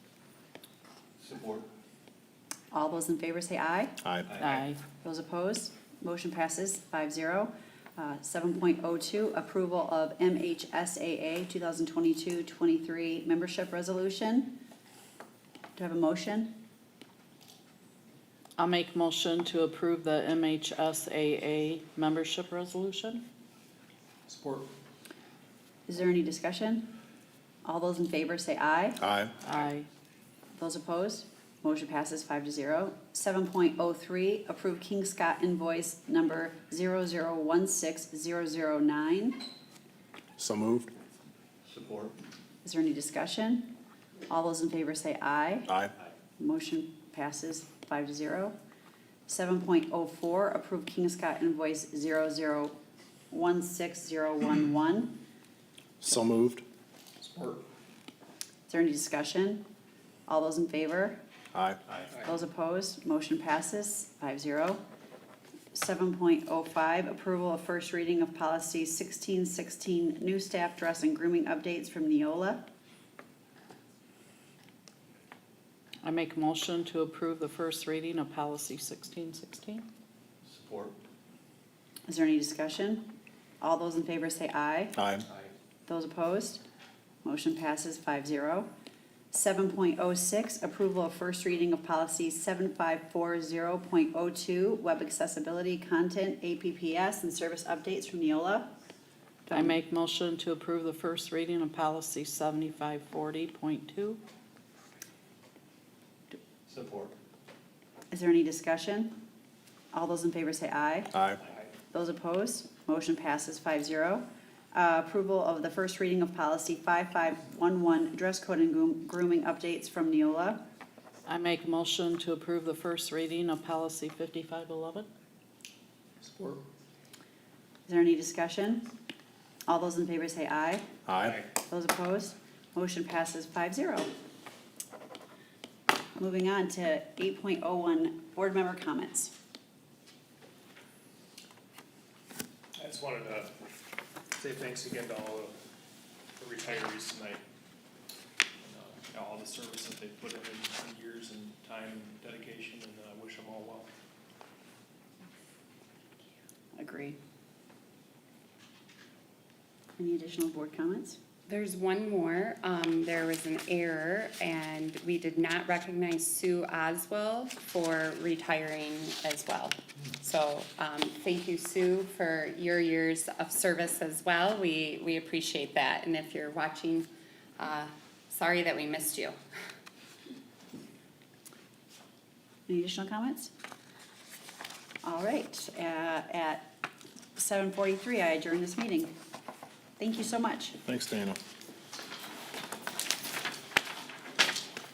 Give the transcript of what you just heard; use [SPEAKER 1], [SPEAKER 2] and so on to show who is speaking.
[SPEAKER 1] Support.
[SPEAKER 2] All those in favor say aye.
[SPEAKER 3] Aye.
[SPEAKER 4] Aye.
[SPEAKER 2] Those opposed, motion passes five zero. Seven point oh two, approval of MHSAA 2022-23 membership resolution. Do I have a motion?
[SPEAKER 4] I'll make motion to approve the MHSAA membership resolution.
[SPEAKER 1] Support.
[SPEAKER 2] Is there any discussion? All those in favor say aye.
[SPEAKER 3] Aye.
[SPEAKER 4] Aye.
[SPEAKER 2] Those opposed, motion passes five to zero. Seven point oh three, approve King Scott invoice number zero zero one six zero zero nine.
[SPEAKER 3] So moved.
[SPEAKER 1] Support.
[SPEAKER 2] Is there any discussion? All those in favor say aye.
[SPEAKER 3] Aye.
[SPEAKER 2] Motion passes five to zero. Seven point oh four, approve King of Scott invoice zero zero one six zero one one.
[SPEAKER 3] So moved.
[SPEAKER 1] Support.
[SPEAKER 2] Is there any discussion? All those in favor?
[SPEAKER 3] Aye.
[SPEAKER 2] Those opposed? Motion passes five zero. Seven point oh five, approval of first reading of policy sixteen sixteen, new staff dress and grooming updates from Neola.
[SPEAKER 4] I make motion to approve the first reading of policy sixteen sixteen.
[SPEAKER 1] Support.
[SPEAKER 2] Is there any discussion? All those in favor say aye.
[SPEAKER 3] Aye.
[SPEAKER 2] Those opposed? Motion passes five zero. Seven point oh six, approval of first reading of policy seven five four zero point oh two, web accessibility content, APPS, and service updates from Neola. Do
[SPEAKER 4] I make motion to approve the first reading of policy seventy-five forty point two.
[SPEAKER 1] Support.
[SPEAKER 2] Is there any discussion? All those in favor say aye.
[SPEAKER 3] Aye.
[SPEAKER 2] Those opposed, motion passes five zero. Uh, approval of the first reading of policy five five one one, dress code and groom- grooming updates from Neola.
[SPEAKER 4] I make motion to approve the first reading of policy fifty-five eleven.
[SPEAKER 1] Support.
[SPEAKER 2] Is there any discussion? All those in favor say aye.
[SPEAKER 3] Aye.
[SPEAKER 2] Those opposed? Motion passes five zero. Moving on to eight point oh one, board member comments.
[SPEAKER 5] I just wanted to say thanks again to all of the retirees tonight. and uh, All the service that they've put in in years and time and dedication, and uh, wish them all well.
[SPEAKER 2] Agree. Any additional board comments?
[SPEAKER 6] There's one more. Um, there was an error and we did not recognize Sue Oswell for retiring as well. So, um, thank you, Sue, for your years of service as well. We, we appreciate that. And if you're watching, uh, sorry that we missed you.
[SPEAKER 2] Any additional comments? All right, uh, at seven forty-three, I adjourn this meeting. Thank you so much.
[SPEAKER 3] Thanks, Dana.